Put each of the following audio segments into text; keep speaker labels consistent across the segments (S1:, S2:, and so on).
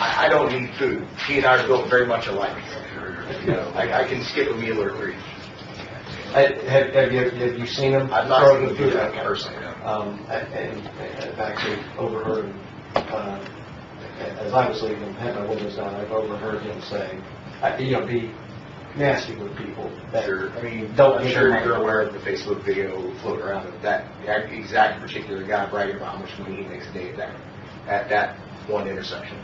S1: I don't need food. He and I are built very much alike. You know, I, I can skip a meal or three.
S2: Have, have you, have you seen him?
S1: I've not seen
S2: throwing
S1: him do
S2: food
S1: that
S2: out?
S1: personally, no.
S2: Um, and, and I've actually overheard, him, uh, as I was leaving, had my windows down, I've overheard him say, uh, you know, be nasty with people. that-
S1: Sure, I mean,
S2: Don't
S1: I'm
S2: give
S1: sure
S2: them-
S1: you're aware of the Facebook video floating around of that that exact particular guy bragging about how much money he makes a day at that, at that one intersection.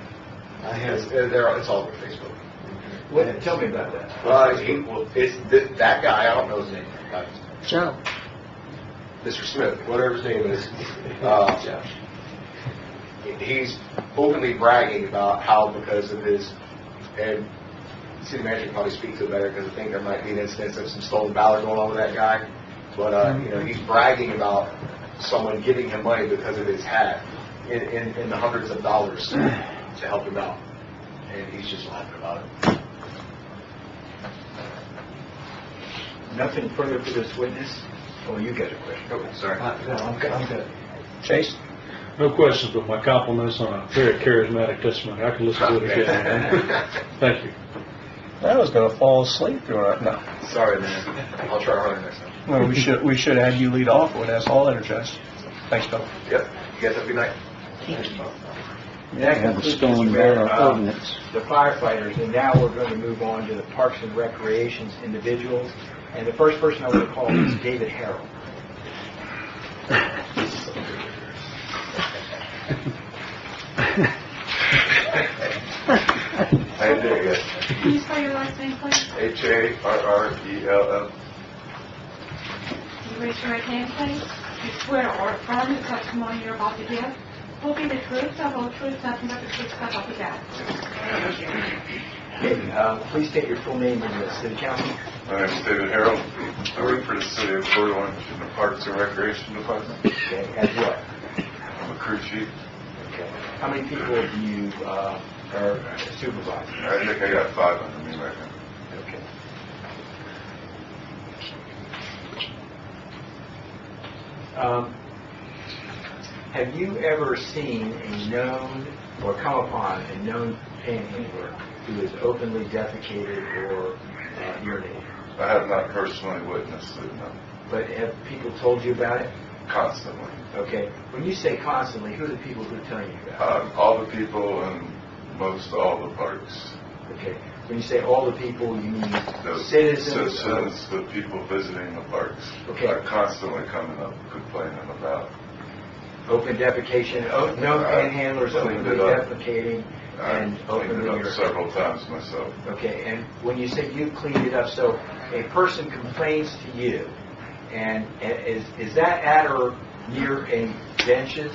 S2: I
S1: It's, uh,
S2: have,
S1: they're, it's all over Facebook.
S2: What- tell
S1: me about that. Uh, he, well, it's, th- that guy, I don't know his name, uh,
S3: Joe.
S1: Mr. Smith, whatever his name is, uh, he's openly bragging about how because of his, and city manager can probably speak to it better, because I think there might be an instance of some stolen valor going on with that guy, but, uh, you know, he's bragging about someone giving him money because of his hat, in, in, in the hundreds of dollars to help him out, and he's just laughing about it.
S4: Nothing further for this witness? Oh, you got a question.
S1: Oh, sorry.
S2: uh, no, I'm, good- I'm good.
S3: Chase?
S5: No questions, but my compliments on a very charismatic testimony. I could listen to it again. Thank you.
S3: I was gonna fall asleep during it. No,
S1: Sorry, man. I'll try harder next time.
S3: Well, we should, we should have you lead off with us all energized. Thanks, Bill.
S1: Yep. You guys have a good night.
S4: That
S6: have a
S4: concludes,
S6: stone
S4: Mr. Mayor,
S6: barrel
S4: uh,
S6: ordinance.
S4: The firefighters, and now we're going to move on to the Parks and Recreations individuals. And the first person I want to call is David Harrell.
S7: How you doing, guys?
S8: Can you spell your last name, please?
S7: H-A-R-R-E-L-L.
S8: Can you raise your right hand, please? Do you swear or affirm the testimony you're about to give will be the truth, the whole truth, nothing but the truth, so help you God?
S4: David, uh, please state your full name and the city council.
S7: My name's David Harold. I work for the city of Fort Orange in the Parks and Recreation Department.
S4: Okay, as what?
S7: I'm a crew chief.
S4: Okay. How many people do you, uh, are supervising?
S7: I think I got five under me right now.
S4: Okay. Um, Have you ever seen a known, or come upon a known panhandler who is openly defecated or uh, urinated?
S7: I have not personally witnessed it, no,
S4: But have people told you about it?
S7: constantly.
S4: Okay. When you say constantly, who are the people who tell you about
S7: Um, All the people in most all the parks,
S4: it? Okay. When you say all the people, you mean
S7: the
S4: citizens? of-
S7: citizens, the people visiting the parks
S4: Okay.
S7: are constantly coming up complaining about
S4: open defecation, o- no
S7: Uh,
S4: panhandlers
S7: cleaned
S4: openly
S7: it up.
S4: defecating and
S7: I've cleaned
S4: openly
S7: it up
S4: urinating.
S7: several times myself.
S4: Okay, and when you say you cleaned it up, so a person complains to you, and i- is, is that at or near a benches?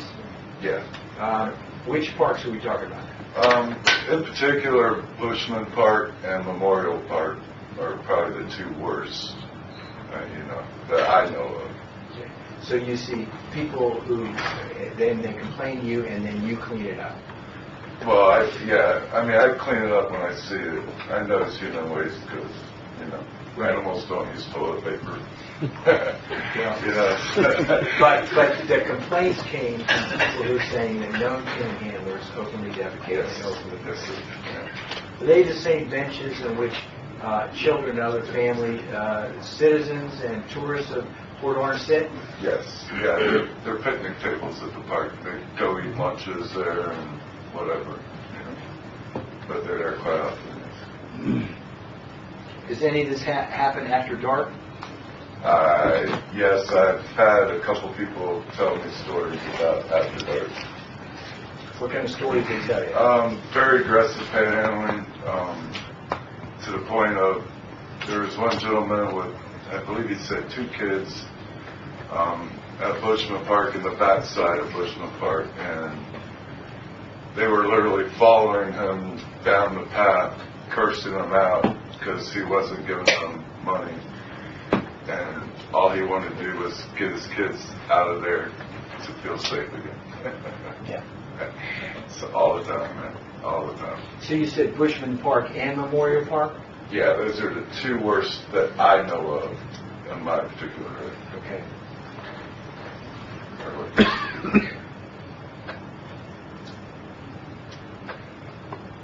S7: Yeah.
S4: Uh, Which parks are we talking about?
S7: Um, in particular, Bushman Park and Memorial Park are probably the two worst, uh, you know, that I know of.
S4: So you see people who, uh, then they complain to you, and then you clean it up.
S7: Well, I, yeah, I mean, I clean it up when I see it. I know it's human waste because, you know, animals don't use toilet paper. You know?
S4: But, but the complaints came from people who are saying that known panhandlers openly defecate
S7: Yes,
S4: and openly
S7: yes, yeah.
S4: Are they the same benches on which uh, children and other family uh, citizens and tourists of Port Orange sit?
S7: Yes, yeah, they're, they're picnic tables at the park. They go eat lunches there and whatever, you know. But they're there quite often.
S4: Does any of this ha- happen after dark?
S7: Uh, yes, I've had a couple people tell me stories about after dark.
S4: What kind of stories do they tell you?
S7: Um, very aggressive panhandling, um, to the point of, there was one gentleman with, I believe he said two kids, um, at Bushman Park, in the backside of Bushman Park, and they were literally following him down the path, cursing him out, because he wasn't giving them money. And all he wanted to do was get his kids out of there to feel safe again. So all the time, man, all the time.
S4: So you said Bushman Park and Memorial Park?
S7: Yeah, those are the two worst that I know of in my particular
S4: Okay.
S7: area.